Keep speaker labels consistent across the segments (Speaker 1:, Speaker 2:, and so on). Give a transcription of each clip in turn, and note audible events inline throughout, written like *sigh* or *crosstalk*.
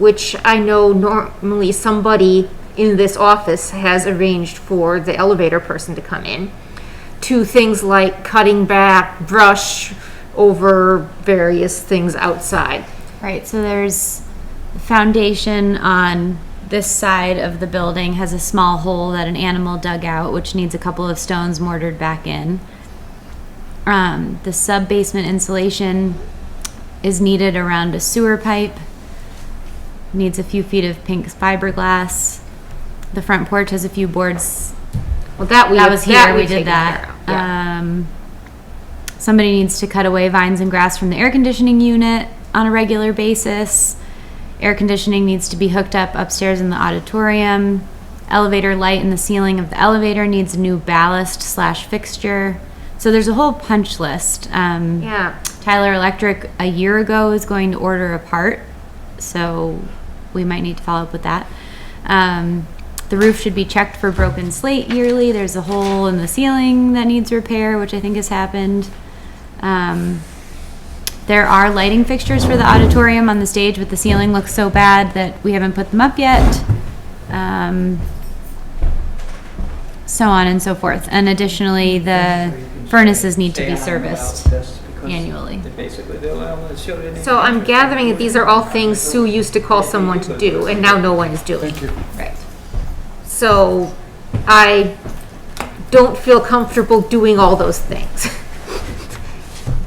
Speaker 1: which I know normally somebody in this office has arranged for the elevator person to come in, to things like cutting back brush over various things outside.
Speaker 2: Right, so there's the foundation on this side of the building has a small hole that an animal dug out, which needs a couple of stones mortared back in. Um, the sub basement insulation is needed around a sewer pipe, needs a few feet of pink fiberglass. The front porch has a few boards
Speaker 1: Well, that we
Speaker 2: that was here.
Speaker 1: we've
Speaker 2: we did
Speaker 1: taken
Speaker 2: that.
Speaker 1: care of, yeah.
Speaker 2: Um, somebody needs to cut away vines and grass from the air conditioning unit on a regular basis. Air conditioning needs to be hooked up upstairs in the auditorium. Elevator light in the ceiling of the elevator needs a new ballast slash fixture. So there's a whole punch list. Um,
Speaker 1: Yeah.
Speaker 2: Tyler Electric a year ago is going to order a part, so we might need to follow up with that. Um, the roof should be checked for broken slate yearly. There's a hole in the ceiling that needs repair, which I think has happened. Um, there are lighting fixtures for the auditorium on the stage, but the ceiling looks so bad that we haven't put them up yet. Um, so on and so forth. And additionally, the furnaces need to be serviced annually.
Speaker 3: Basically, they're allowing the children.
Speaker 1: So I'm gathering that these are all things Sue used to call someone to do, and now no one is doing.
Speaker 4: Thank you.
Speaker 1: Right. So I don't feel comfortable doing all those things.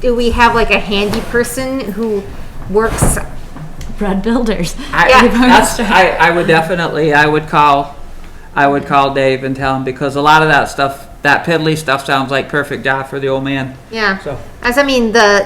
Speaker 1: *laughs* Do we have like a handy person who works?
Speaker 2: Brad Builders.
Speaker 3: I,
Speaker 1: Yeah.
Speaker 3: that's, I, I would definitely, I would call, I would call Dave and tell him, because a lot of that stuff, that piddly stuff sounds like perfect job for the old man,
Speaker 1: Yeah.
Speaker 3: so.
Speaker 1: As I mean, the,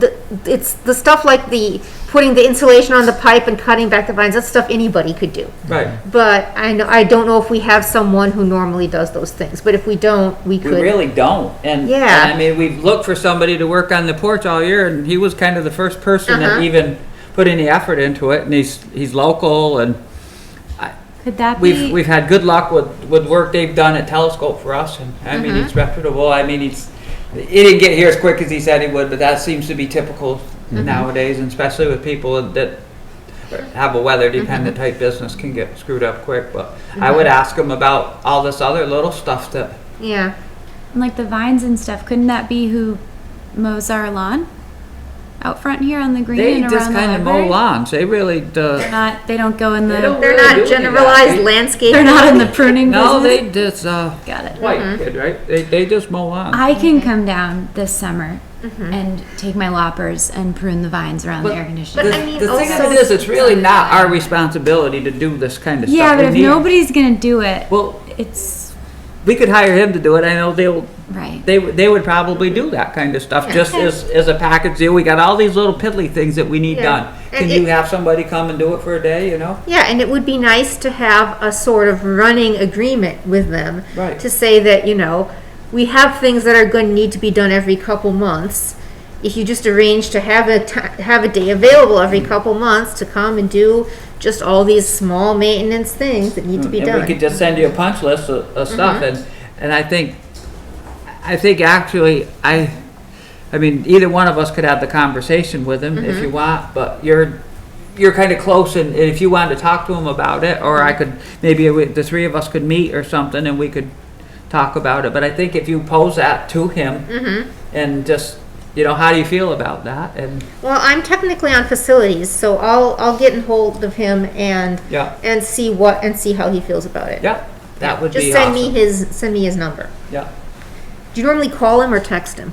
Speaker 1: the, the, it's the stuff like the, putting the insulation on the pipe and cutting back the vines, that's stuff anybody could do.
Speaker 3: Right.
Speaker 1: But I know, I don't know if we have someone who normally does those things, but if we don't, we
Speaker 3: We
Speaker 1: could.
Speaker 3: really don't, and,
Speaker 1: Yeah.
Speaker 3: and I mean, we've looked for somebody to work on the porch all year, and he was kind of the first person
Speaker 1: Uh-huh.
Speaker 3: that even put any effort into it, and he's, he's local, and
Speaker 2: Could that
Speaker 3: We've,
Speaker 2: be?
Speaker 3: we've had good luck with, with work they've done at Telescope for us, and I mean,
Speaker 2: Mm-hmm.
Speaker 3: it's reputable, I mean, it's, he didn't get here as quick as he said he would, but that seems to be typical
Speaker 2: Mm-hmm.
Speaker 3: nowadays, and especially with people that have a weather-dependent
Speaker 2: Mm-hmm.
Speaker 3: type business can get screwed up quick, but I would ask him about all this other little stuff that,
Speaker 1: Yeah.
Speaker 2: and like the vines and stuff, couldn't that be who mows our lawn? Out front here on the green
Speaker 3: they
Speaker 2: and
Speaker 3: just
Speaker 2: around
Speaker 3: kind of
Speaker 2: the
Speaker 3: mow
Speaker 2: library?
Speaker 3: lawns, they really, uh,
Speaker 2: Not, they don't go in
Speaker 3: They
Speaker 2: the,
Speaker 3: don't-
Speaker 1: They're not
Speaker 3: really do any of that. eh?
Speaker 1: generalized
Speaker 3: They-
Speaker 1: landscape.
Speaker 2: *laughs* they're not in the pruning
Speaker 3: no,
Speaker 2: business?
Speaker 3: they Mm-hmm. just, uh,
Speaker 2: Got it.
Speaker 3: white kid, right, they, they just mow lawns.
Speaker 2: I can come down this summer and take my loppers and prune the vines around the
Speaker 3: Mm-hmm. But-
Speaker 2: air
Speaker 1: but
Speaker 2: conditioning.
Speaker 3: The
Speaker 1: I mean,
Speaker 3: the thing of
Speaker 1: also-
Speaker 3: it is, it's really not our responsibility to do this kind of stuff.
Speaker 2: Yeah, but
Speaker 3: We
Speaker 2: if
Speaker 3: need-
Speaker 2: nobody's gonna do it,
Speaker 3: Well,
Speaker 2: it's,
Speaker 3: we could hire him to do it. I know they'll,
Speaker 2: right.
Speaker 3: they, would- they would probably do that kind of stuff, just as, as a package deal. We got all these little piddly things that we need
Speaker 1: Yeah.
Speaker 3: done.
Speaker 1: And
Speaker 3: Can you
Speaker 1: it-
Speaker 3: have somebody come and do it for a day, you know?
Speaker 1: Yeah, and it would be nice to have a sort of running agreement with them.
Speaker 3: Right.
Speaker 1: To say that, you know, we have things that are going to need to be done every couple months. If you just arrange to have a, ti- have a day available every couple months to come and do just all these small maintenance things that need to be
Speaker 3: Mm, And we could
Speaker 1: done. Mm-hmm.
Speaker 3: just send you a punch list of, of stuff and, and I think, I think actually, I, I mean, either one of us could have the conversation with him
Speaker 1: Mm-hmm.
Speaker 3: if you want, but you're, you're kind of close and and if you wanted to talk to him about it, or I
Speaker 1: Mm-hmm.
Speaker 3: could, maybe we- the three of us could meet or something and we could talk about it, but I think if you pose that to him
Speaker 1: Mm-hmm.
Speaker 3: and just, you know, how do you feel about that? And,
Speaker 1: Well, I'm technically on facilities, so I'll, I'll get in hold of him and,
Speaker 3: Yeah.
Speaker 1: and see what, and see how he feels about it.
Speaker 3: yeah, that would
Speaker 1: Just
Speaker 3: be
Speaker 1: send me
Speaker 3: awesome.
Speaker 1: his, send me his number.
Speaker 3: Yeah.
Speaker 1: Do you normally call him or text him?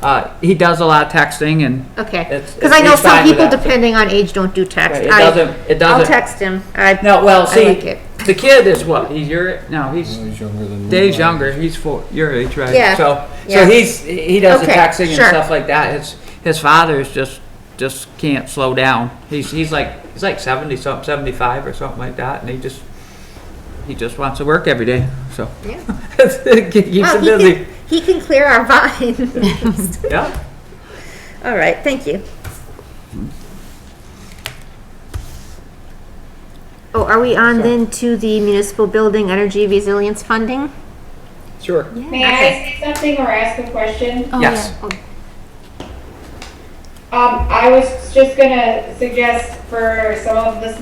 Speaker 3: Uh, he does a lot of texting and
Speaker 1: Okay,
Speaker 3: It's-
Speaker 1: because I know
Speaker 3: he's
Speaker 1: some
Speaker 3: fine with
Speaker 1: people,
Speaker 3: that, so-
Speaker 1: depending on age, don't do text.
Speaker 3: Right, it
Speaker 1: I-
Speaker 3: doesn't- it
Speaker 1: I'll
Speaker 3: doesn't-
Speaker 1: text him. I,
Speaker 3: No, well,
Speaker 1: I
Speaker 3: see,
Speaker 1: like it.
Speaker 3: the kid is what? He's your no, he's
Speaker 4: He's younger than me.
Speaker 3: Dave's younger. He's four, your age, right?
Speaker 1: Yeah,
Speaker 3: So,
Speaker 1: yeah.
Speaker 3: so he's he does the
Speaker 1: Okay,
Speaker 3: taxing and
Speaker 1: sure.
Speaker 3: stuff like that. His his father is just just can't slow down. He's he's like he's like seventy something, seventy five or something like that, and he just he just wants to work every day. So
Speaker 1: Yeah.
Speaker 3: it *laughs* keeps
Speaker 1: Well,
Speaker 3: him
Speaker 1: Oh, he
Speaker 3: busy.
Speaker 1: can, he can clear our vines. *laughs*
Speaker 3: Yeah.
Speaker 1: All right, thank you. Oh, are we on then to the municipal building energy resilience funding?
Speaker 3: Sure.
Speaker 5: May I say something or ask a question?
Speaker 2: Oh,
Speaker 3: yes.
Speaker 5: Um, I was just gonna suggest for some of the